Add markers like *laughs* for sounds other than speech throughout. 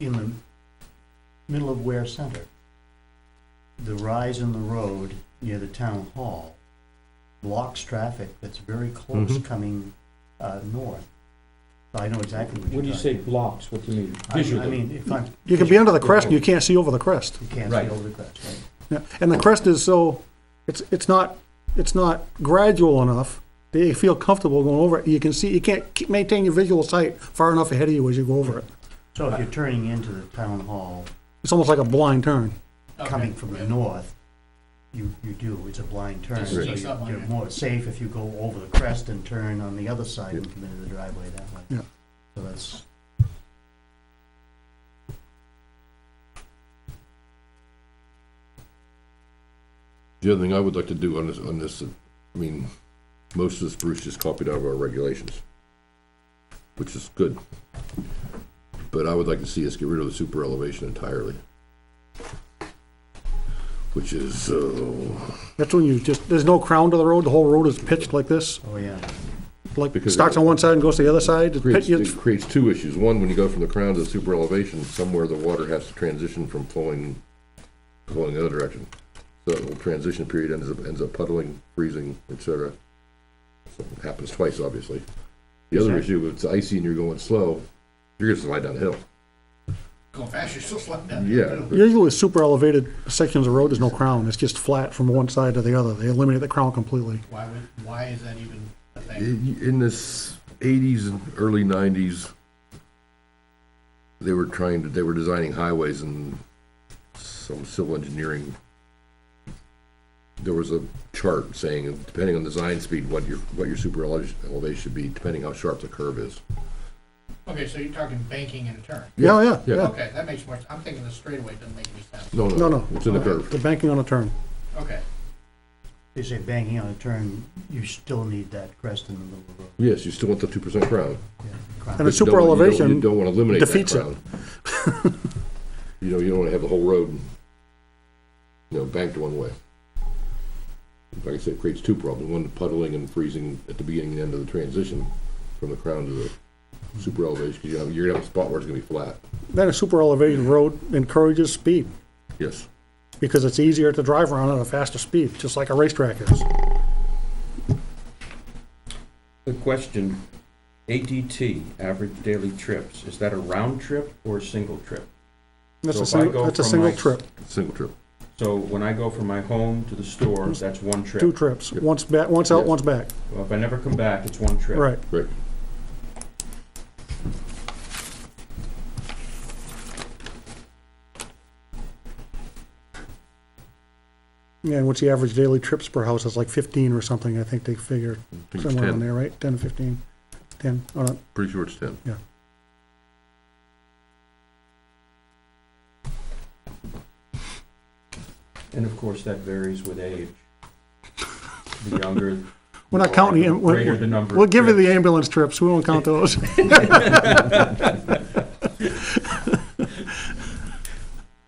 in the middle of Ware Center, the rise in the road near the town hall blocks traffic that's very close coming uh, north. So I know exactly what you're talking. When you say blocks, what do you mean? I- Visually? I mean, if I'm. You can be under the crest, and you can't see over the crest. You can't Right. see over the crest, right? Yeah, And the crest is so, it's, it's not, it's not gradual enough that you feel comfortable going over it. You can see, you can't keep- maintain your visual sight far enough ahead of you as you go over it. So if you're turning into the town hall, It's almost like a blind turn. coming from the north, you, you do, it's a blind turn. Just- So just you're up on you're it. more safe if you go over the crest and turn on the other side and come into the driveway that way. Yeah. So that's, The other thing I would like to do on this, on this, I mean, most of this Bruce just copied out of our regulations, which is good. But I would like to see us get rid of the super elevation entirely. Which is, uh, That's when you just, there's no crown to the road, the whole road is pitched like this, oh, yeah. like Because- starts on one side and goes to the other side. It's creates, pit- it it's- creates two issues. One, when you go from the crown to the super elevation, somewhere the water has to transition from flowing, flowing the other direction. So the transition period ends up, ends up puddling, freezing, et cetera. So it Happens twice, obviously. The other issue, if it's icy and you're going slow, you're gonna slide down a hill. Go fast, you're still sliding down. Yeah, but Usually with super elevated sections of road, there's no crown, it's just flat from one side to the other. They eliminate the crown completely. Why would, why is that even a thing? in in this eighties and early nineties, they were trying to, they were designing highways and some civil engineering. There was a chart saying, depending on the design speed, what your, what your super eleva- elevation should be, depending how sharp the curve is. Okay, so you're talking banking and a turn. Yeah, yeah, Yeah. yeah. Okay, that makes more, I'm thinking the straightaway doesn't make any sense. No, No, no, no. no, it's in the curve. The banking on a turn. Okay, They say banging on a turn, you still need that crest in the middle of the road. Yes, you still want the two percent crown. yeah, crown. And a But you super don't wanna- you don't- elevation You don't want to eliminate that defeats it. crown. *laughs* You know, you don't want to have the whole road, you know, banked one way. Like I said, it creates two problems, one puddling and freezing at the beginning and end of the transition from the crown to the super elevation, because you have, you're gonna have a spot where it's gonna be flat, Then a super elevated road encourages speed yes. because it's easier to drive around at a faster speed, just like a racetrack is. The question, ADT, average daily trips, is that a round trip or a single trip? That's So a if I single, go that's a from single my- trip, Single trip, So when I go from my home to the store, that's one trip. two trips, once back, once out, Yes. once back, Well, If I never come back, it's one trip. right. right. Yeah, and what's the average daily trips per house? It's like fifteen or something, I think they figure I think it's somewhere in ten, there, right? Ten, fifteen, ten, all right. pretty sure it's ten. And of course, that varies with age. The younger. *laughs* We're not counting, the the am- we're- Oh, Greater the number. of we'll give you the trips. ambulance trips, we *laughs* won't count those. *laughs*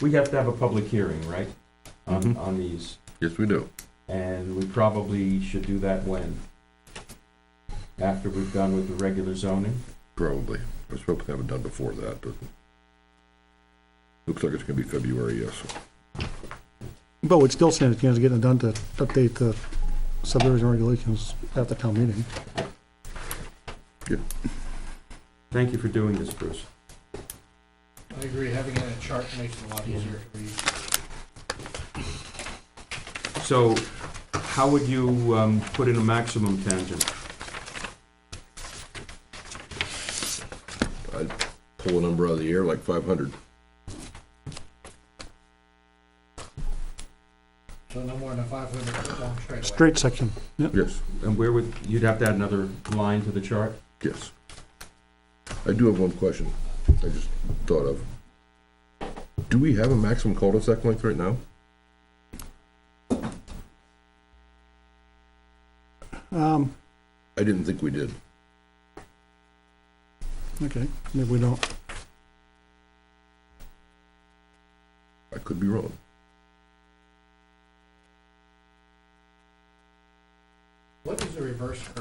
We have to have a public hearing, right? On, Mm-hmm. on these, Yes, we do. and we probably should do that when? After we've done with the regular zoning? Probably. I was hoping to have it done before that, but looks like it's gonna be February, yes. But we'd still stand a chance of getting it done to update the subdivision regulations at the town meeting. Thank you for doing this, Bruce. I agree, having it in a chart makes it a lot easier to read. So, how would you, um, put in a maximum tangent? I'd pull a number out of the air like five hundred. So no more than a five hundred foot long straightaway. Straight section, Yes, And where would, you'd have to add another line to the chart? yes. I do have one question I just thought of. Do we have a maximum cul-de-sac length right now? um, I didn't think we did. okay, maybe we don't. I could be wrong. What is the reverse curve?